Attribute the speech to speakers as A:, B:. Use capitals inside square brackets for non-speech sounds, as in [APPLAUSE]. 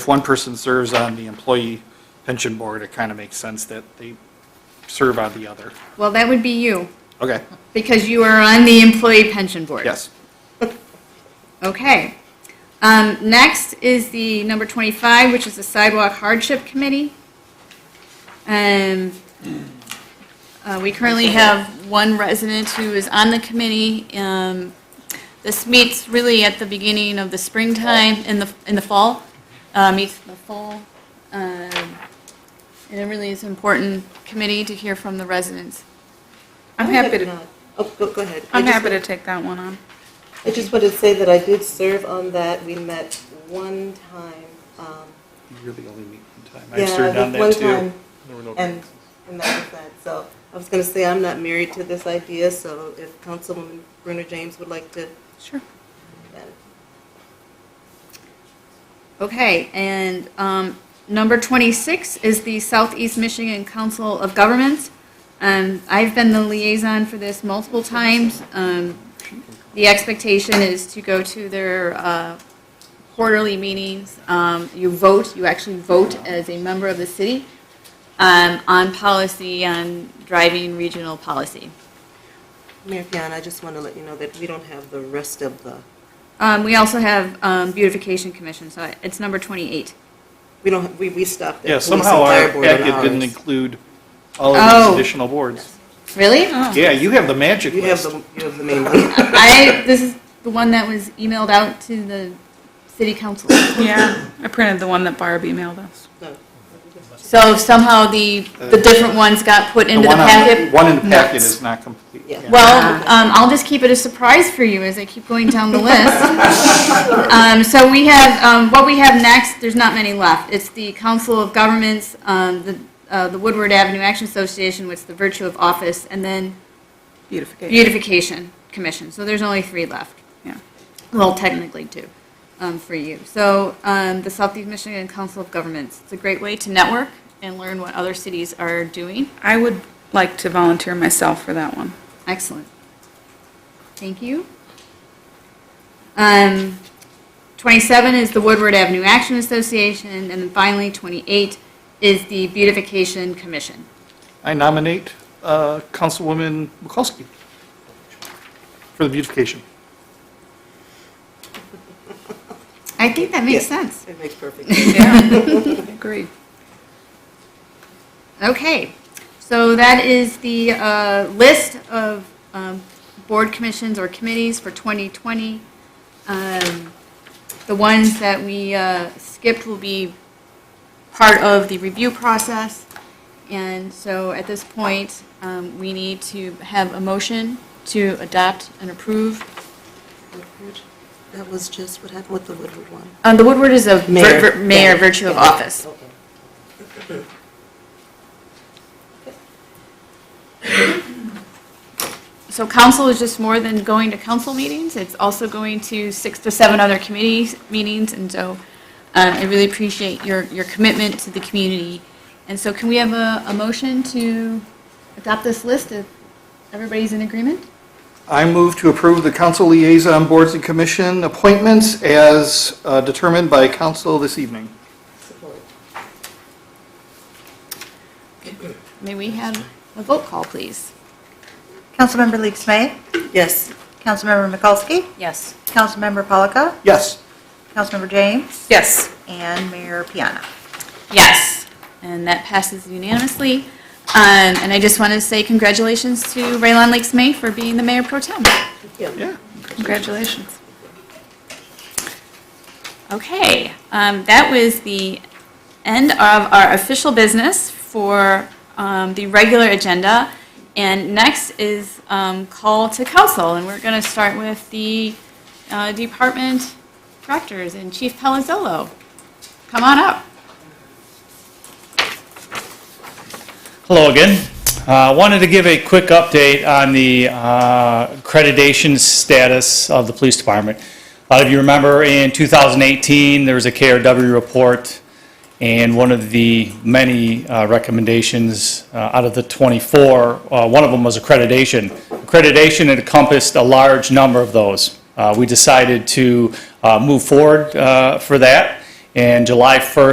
A: if one person serves on the employee pension board, it kind of makes sense that they serve on the other.
B: Well, that would be you,
A: Okay,
B: because you are on the Employee Pension Board.
A: yes.
B: Okay. Um, Next is the number 25, which is the Sidewalk Hardship Committee. Um, uh, We currently have one resident who is on the committee. Um, This meets really at the beginning of the springtime, in the, in the fall, uh, meets in the fall. Um, And it really is an important committee to hear from the residents.
C: I'm
D: I
C: happy
D: have
C: to,
D: not. Oh, go, go ahead. I
C: I'm
D: just-
C: happy to take that one on.
D: I just wanted to say that I did serve on that. We met one time. um,
A: You're the only meeting time.
D: yeah,
A: I've served on
D: one
A: that too.
D: time, And, and that was that. So I was going to say, I'm not married to this idea, so if Councilwoman Brunner James would like to, uh,
B: Sure.
D: then
B: Okay, and um, number 26 is the Southeast Michigan Council of Governments. Um, I've been the liaison for this multiple times. Um, The expectation is to go to their uh, quarterly meetings. Um, You vote, you actually vote as a member of the city um, on policy, on driving regional policy.
D: Mayor Piana, I just want to let you know that we don't have the rest of the,
B: Um, We also have um, beautification commission, so it's number 28.
D: we don't, we, we stopped at
A: Yeah,
D: police and
A: somehow our
D: fire board on
A: packet didn't
D: ours.
A: include all of
B: Oh.
A: these additional boards.
B: Really?
C: Oh.
A: Yeah, you have the magic
D: You have
A: list.
D: the, you have the
A: [LAUGHS]
D: main
B: [LAUGHS]
D: one.
B: I, this is the one that was emailed out to the city council.
C: Yeah, I printed the one that Barb emailed us.
D: No.
B: So somehow the, the different ones got put into the
A: one on-
B: packet?
A: One in the packet
B: Nuts.
A: is not complete.
D: Yeah.
B: Well, um, I'll just keep it a surprise for you as I keep going down the list. Um, so we have, um, what we have next, there's not many left. It's the Council of Governments, um, the, uh, the Woodward Avenue Action Association, which is the virtue of office, and then
C: Beautification.
B: beautification commission. So there's only three left.
C: Yeah.
B: Well, technically two um, for you. So um, the Southeast Michigan Council of Governments, it's a great way to network and learn what other cities are doing.
C: I would like to volunteer myself for that one.
B: Excellent. Thank you. Um, 27 is the Woodward Avenue Action Association, and then finally 28 is the Beautification Commission.
A: I nominate uh, Councilwoman Bukowski for the beautification.
B: I think that makes
D: Yeah,
B: sense.
D: It
A: [LAUGHS]
D: makes perfect sense.
C: Yeah, [LAUGHS] agreed.
B: Okay, so that is the uh, list of um, board commissions or committees for 2020. Um, The ones that we uh, skipped will be part of the review process. And so at this point, um, we need to have a motion to adopt and approve.
D: That was just what happened with the Woodward one.
B: Um, The Woodward is a vir- vir-
D: Yeah.
B: mayor virtue of
D: Yeah.
B: office.
D: Okay.
B: So council is just more than going to council meetings, it's also going to six to seven other committee meetings, and so uh, I really appreciate your, your commitment to the community. And so can we have a, a motion to adopt this list if everybody's in agreement?
A: I move to approve the council liaison boards and commission appointments as uh, determined by council this evening.
D: Support.
B: May we have a vote call, please?
E: Councilmember Leaks May.
D: Yes.
E: Councilmember Mikulski.
B: Yes.
E: Councilmember Polika.
A: Yes.
E: Councilmember James.
C: Yes.
E: And Mayor Piana.
B: Yes, and that passes unanimously. Um, And I just want to say congratulations to Raylon Lakes May for being the mayor pro tem.
A: Yeah.
C: Congratulations.
B: Okay, um, that was the end of our official business for um, the regular agenda. And next is um, call to council, and we're going to start with the uh, department directors and Chief Palazzolo. Come on up.
F: Hello again. I wanted to give a quick update on the uh, accreditation status of the police department. A lot of you remember in 2018, there was a KRW report, and one of the many uh, recommendations uh, out of the 24, uh, one of them was accreditation. Accreditation encompassed a large number of those. Uh, We decided to uh, move forward uh, for that, And July 1st,